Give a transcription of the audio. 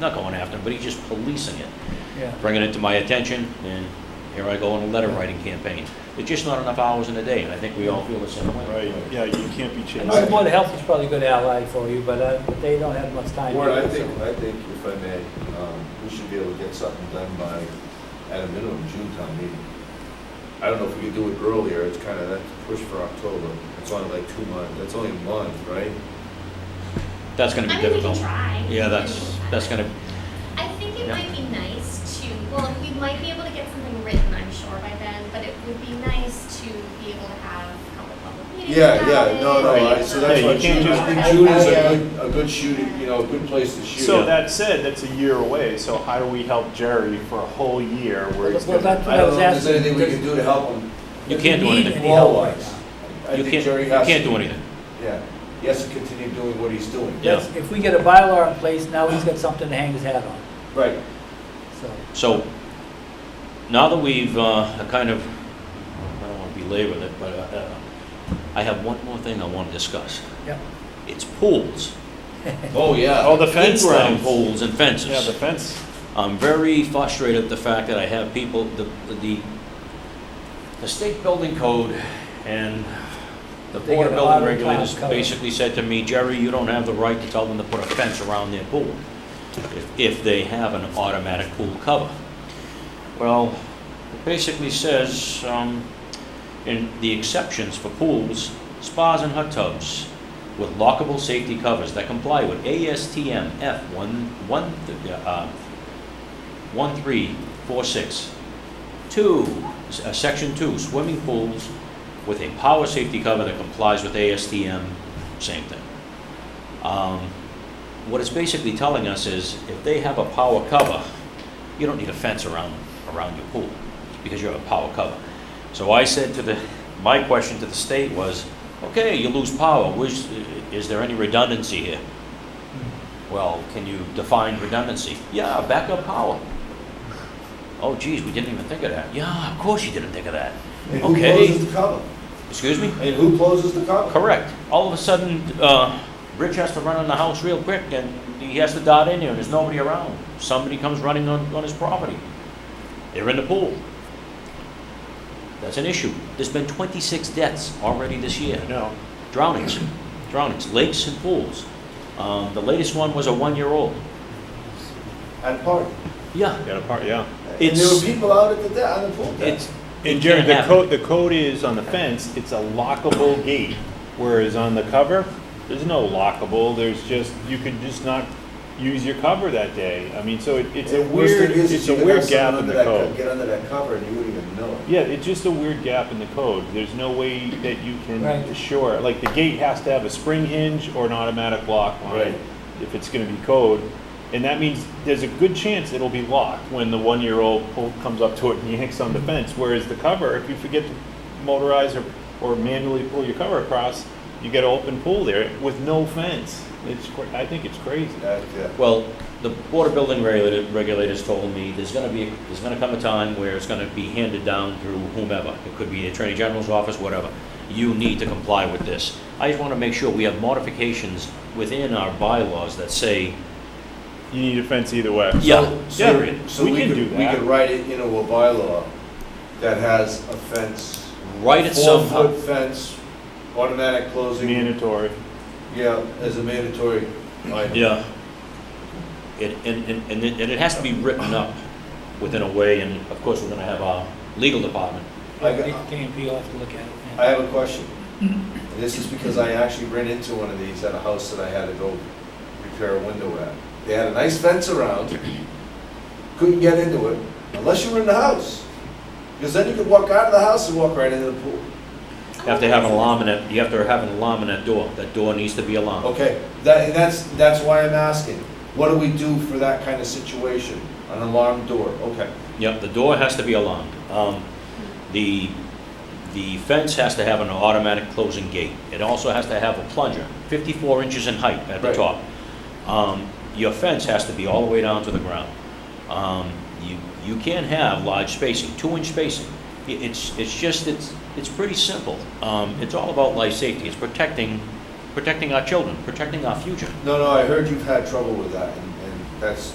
not going after him, but he's just policing it, yeah. bringing it to my attention, and here I go on a letter writing campaign. There's just not enough hours in the day, and I think we all feel the same way. Right, yeah, you can't be chased. I know the Board of Health is probably a good ally for you, but, uh, but they don't have much time. Warren, I either, think, so- I think if I may, um, we should be able to get something done by, at a minimum, June town meeting. I don't know if we could do it earlier, it's kind of, that's a push for October, it's only like two months, that's only a month, right? That's gonna be I mean, we can difficult. try. Yeah, that's, that's gonna, I think it Yeah. might be nice to, well, we might be able to get something written, I'm sure, by then, but it would be nice to be able to have a couple public meetings Yeah, about yeah, it, no, no, I- so that's Yeah, why you can't June, just- June is a good, a good shooting, you know, a good place to shoot. So that said, that's a year away, so how do we help Jerry for a whole year where he's Well, gonna? that's I what I don't was know if there's asking. anything we Does- can do to help him. you can't do Does he need anything. any help right Wall-wise. now? I You think can't, Jerry you has can't to- do anything. Yeah, he has to continue doing what he's doing. Yeah. That's- If we get a bylaw in place, now he's got something to hang his hat on, Right, so. So, now that we've, uh, kind of, I don't wanna belabor it, but, uh, uh, I have one more thing I wanna discuss. Yep. It's pools. oh, yeah. Oh, the fence Playground lines. Poles and Yeah, the fences. fence. I'm very frustrated at the fact that I have people, the, the, the state building code and the They board of got a lot building of regulators ground cover. basically said to me, Jerry, you don't have the right to tell them to put a fence around their pool if, if they have an automatic pool cover. Well, it basically says, um, in the exceptions for pools, spas and hot tubs with lockable safety covers that comply with ASTM F one, one, th- uh, one, three, four, six. Two, s- uh, section two, swimming pools with a power safety cover that complies with ASTM, same thing. Um, what it's basically telling us is if they have a power cover, you don't need a fence around, around your pool because you have a power cover. So I said to the, my question to the state was, okay, you lose power, which, is there any redundancy here? Well, can you define redundancy? Yeah, backup power. Oh geez, we didn't even think of that. Yeah, of course you didn't think of that. And who Okay, closes the cover? excuse me? And who closes the cover? Correct. All of a sudden, uh, Rich has to run in the house real quick and he has to dart in there and there's nobody around. Somebody comes running on, on his property. They're in the pool. That's an issue. There's been twenty-six deaths already this year. No. Drownings, drownings, lakes and pools. Um, the latest one was a one-year-old. At park. Yeah, Got a part, yeah. And there It's- were people out at the deck, on the pool deck. it's, And It Jerry, can't the happen. code, the code is on the fence, it's a lockable gate, whereas on the cover, there's no lockable, there's just, you could just not use your cover that day. I mean, so it, it's a And worst weird, thing is, is it's a you could weird have someone gap in under the that co- code. Get under that cover and you wouldn't even know it. Yeah, it's just a weird gap in the code. There's no way that you can Right. assure, like, the gate has to have a spring hinge or an automatic lock on Right. it, if it's gonna be code. And that means there's a good chance it'll be locked when the one-year-old pull, comes up to it and yanks on the fence, whereas the cover, if you forget to motorize or, or manually pull your cover across, you get an open pool there with no fence. It's, cra- I think it's crazy. That, uh, yeah. Well, the Board of Building regulator- Regulators told me there's gonna be, there's gonna come a time where it's gonna be handed down through whomever. It could be the Attorney General's office, whatever. You need to comply with this. I just wanna make sure we have modifications within our bylaws that say, You need a fence either way. yeah, So- period. So we we can could, do we that. could write it into a bylaw that has a fence. Write it somehow. Four-foot fence, automatic closing, Mandatory. yeah, as a mandatory item. Yeah. It, and, and, and it, and it has to be written up within a way, and of course, we're gonna have our legal department. I Yeah, got- Dick KMP will have to look at it. yeah. I have a question. And This is because I actually ran into one of these at a house that I had to go repair a window at. They had a nice fence around, couldn't get into it unless you were in the house. Because then you could walk out of the house and walk right into the pool. You have to have an alarm in that, you have to have an alarm in that door. That door needs to be alarmed. Okay, that, and that's, that's why I'm asking. What do we do for that kind of situation? An alarm door, okay. Yep, the door has to be alarmed. Um, The, the fence has to have an automatic closing gate. It also has to have a plunger, 54 inches in height at the Right. top. Um, Your fence has to be all the way down to the ground. Um, You, you can't have large spacing, two-inch spacing. I- It's, it's just, it's, it's pretty simple. Um, It's all about life safety. It's protecting, protecting our children, protecting our future. No, no, I heard you've had trouble with that and, and that's,